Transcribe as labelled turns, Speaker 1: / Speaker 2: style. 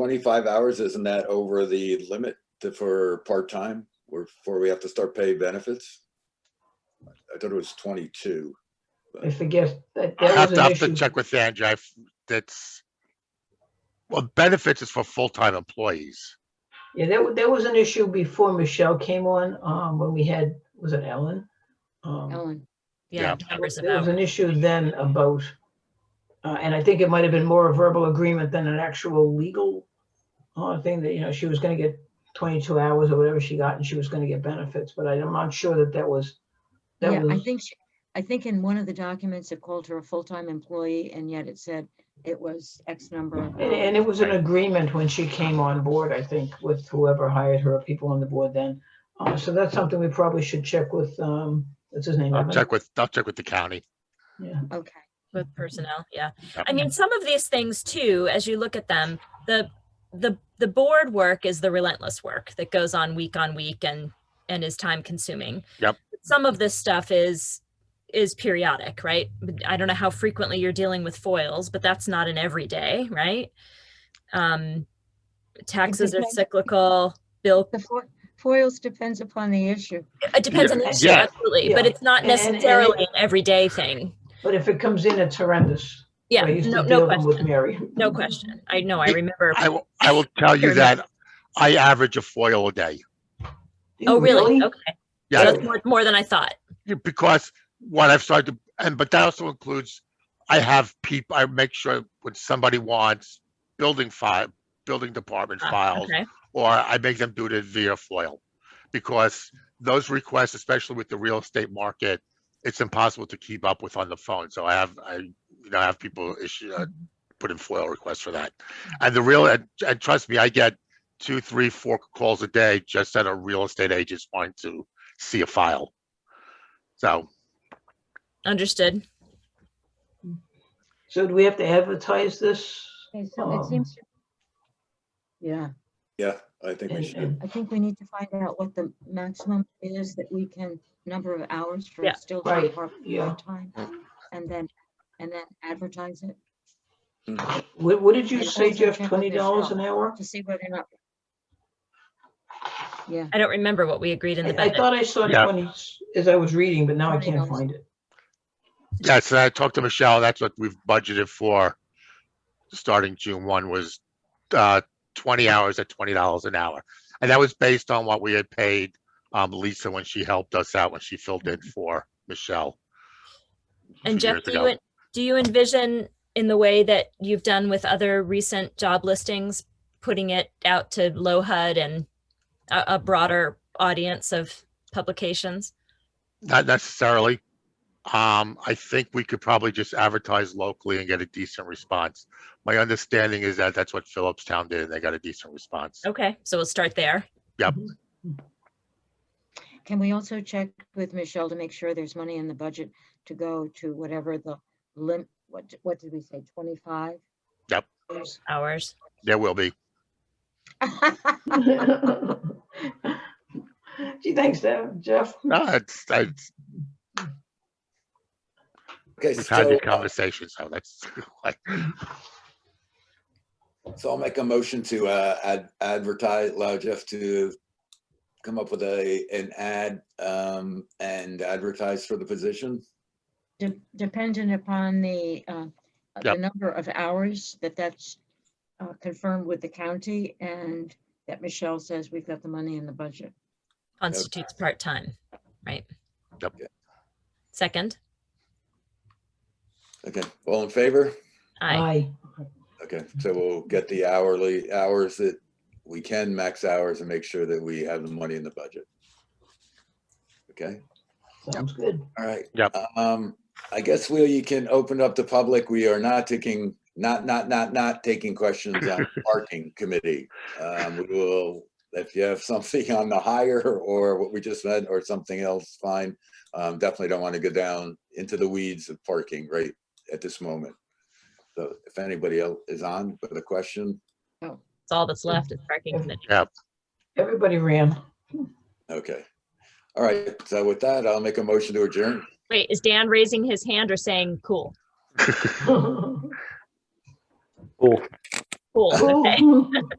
Speaker 1: twenty-five hours, isn't that over the limit to- for part-time, or before we have to start paying benefits? I thought it was twenty-two.
Speaker 2: I forget. that
Speaker 3: I
Speaker 2: that
Speaker 3: have
Speaker 2: was
Speaker 3: to,
Speaker 2: an
Speaker 3: have to
Speaker 2: issue.
Speaker 3: check with Andrew. I've- That's, well, benefits is for full-time employees.
Speaker 2: Yeah, that, wa- that was an issue before Michelle came on, um, when we had, was it Ellen? Um,
Speaker 4: Ellen.
Speaker 3: Yeah.
Speaker 5: Yeah, numbers
Speaker 2: There was
Speaker 5: about,
Speaker 2: an issue then about, uh, and I think it might have been more a verbal agreement than an actual legal uh, thing that, you know, she was gonna get twenty-two hours or whatever she got and she was gonna get benefits, but I'm not sure that that was, that
Speaker 4: Yeah, I
Speaker 2: was,
Speaker 4: think, she- I think in one of the documents, it called her a full-time employee and yet it said it was X number. of
Speaker 2: and, and
Speaker 4: hours.
Speaker 2: it was an
Speaker 3: Um, Right.
Speaker 2: agreement when she came on board, I think, with whoever hired her, people on the board then. Uh, so that's something we probably should check with, um, what's his name?
Speaker 3: I'll
Speaker 2: Evan?
Speaker 3: check with, I'll check with the county.
Speaker 2: Yeah,
Speaker 4: Okay,
Speaker 5: with personnel, yeah.
Speaker 3: Yep.
Speaker 5: I mean, some of these things too, as you look at them, the, the, the board work is the relentless work that goes on week on week and, and is time consuming.
Speaker 3: Yep.
Speaker 5: Some of this stuff is, is periodic, right? I don't know how frequently you're dealing with foils, but that's not an everyday, right? Um, taxes are
Speaker 4: depends-
Speaker 5: cyclical, bill,
Speaker 4: the fo- foils depends upon the issue.
Speaker 5: it depends on the issue,
Speaker 3: Yeah.
Speaker 5: absolutely, but
Speaker 2: Yeah.
Speaker 5: it's not
Speaker 2: And- and- and-
Speaker 5: necessarily an everyday thing.
Speaker 2: but if it comes in, it's horrendous.
Speaker 5: Yeah,
Speaker 2: I used
Speaker 5: no,
Speaker 2: to
Speaker 5: no
Speaker 2: deal with
Speaker 5: question,
Speaker 2: Mary.
Speaker 5: no question. I know, I
Speaker 3: Yeah,
Speaker 5: remember.
Speaker 3: I will, I will tell you that I average a foil a day.
Speaker 5: Oh, really? Okay. So
Speaker 3: Yeah,
Speaker 5: that's more, more than I thought.
Speaker 3: you- because what I've started, to- and, but that also includes, I have people, I make sure when somebody wants building file, building department
Speaker 5: Ah,
Speaker 3: files,
Speaker 5: Okay.
Speaker 3: or I make them do it via FOIL. Because those requests, especially with the real estate market, it's impossible to keep up with on the phone. So I have, I, you know, I have people issue, uh, put in FOIL requests for that. And the real, and, and trust me, I get two, three, four calls a day just that are real estate agents wanting to see a file. So,
Speaker 5: Understood.
Speaker 2: So do we have to advertise this?
Speaker 4: Okay, so
Speaker 2: Um,
Speaker 4: it seems. to- Yeah,
Speaker 1: Yeah, I think we
Speaker 2: And-
Speaker 1: should.
Speaker 2: and-
Speaker 4: I think we need to find out what the maximum is that we can, number of hours for
Speaker 5: Yeah,
Speaker 4: still
Speaker 2: right,
Speaker 4: part,
Speaker 2: yeah.
Speaker 4: part-time. And then, and then advertise it
Speaker 2: What, what did you
Speaker 4: It
Speaker 2: say,
Speaker 4: depends on
Speaker 2: Jeff?
Speaker 4: check with
Speaker 2: Twenty dollars an
Speaker 4: Michelle.
Speaker 2: hour?
Speaker 4: to see whether or not. Yeah,
Speaker 5: I don't remember what we agreed in
Speaker 2: I
Speaker 5: the
Speaker 2: I
Speaker 5: budget.
Speaker 2: thought I saw
Speaker 3: Yeah.
Speaker 2: twenty s- as I was reading, but now I can't
Speaker 4: $20.
Speaker 2: find it.
Speaker 3: yeah, so I talked to Michelle, that's what we've budgeted for. Starting June one was, uh, twenty hours at twenty dollars an hour. And that was based on what we had paid, um, Lisa when she helped us out, when she filled in for Michelle. a few
Speaker 5: And Jeff,
Speaker 3: years
Speaker 5: do
Speaker 3: ago.
Speaker 5: you, en- do you envision in the way that you've done with other recent job listings, putting it out to low HUD and a, a broader audience of publications?
Speaker 3: Not necessarily. Um, I think we could probably just advertise locally and get a decent response. My understanding is that that's what Phillips Town did, and they got a decent response.
Speaker 5: Okay, so we'll start there.
Speaker 4: can we also check with Michelle to make sure there's money in the budget to go to whatever the lim, what, d- what did we say, twenty-five?
Speaker 3: Yep.
Speaker 5: Hours.
Speaker 3: There will be.
Speaker 2: Gee, thanks, Dev- Jeff.
Speaker 3: No, it's, it's,
Speaker 1: Okay,
Speaker 3: we've had the
Speaker 5: uh,
Speaker 1: so,
Speaker 3: conversation, so that's like,
Speaker 1: so I'll make a motion to, uh, ad- advertise, allow Jeff to come up with a, an ad, um, and advertise for the position.
Speaker 4: De- Dependent upon the, uh, uh, the
Speaker 3: Yep.
Speaker 4: number of hours that that's uh, confirmed with the county and that Michelle says we've got the money in the budget.
Speaker 5: Constitutes part-time, right?
Speaker 3: Yep.
Speaker 5: Second,
Speaker 1: Okay, all in favor?
Speaker 5: aye.
Speaker 1: Okay, so we'll get the hourly hours that we can, max hours, and make sure that we have the money in the budget. Okay,
Speaker 2: Sounds good.
Speaker 1: all right.
Speaker 3: Yep.
Speaker 1: Um, I guess, Will, you can open up the public. We are not taking, not, not, not, not taking questions on parking committee. Um, we will, if you have something on the hire or what we just said or something else, fine. Um, definitely don't want to go down into the weeds of parking right at this moment. So if anybody else is on with a question,
Speaker 5: It's all that's left is parking committee.
Speaker 2: Everybody ran.
Speaker 1: Okay. All right. So with that, I'll make a motion to adjourn.
Speaker 5: Wait, is Dan raising his hand or saying, cool?
Speaker 2: All
Speaker 5: Cool.
Speaker 2: Who- who-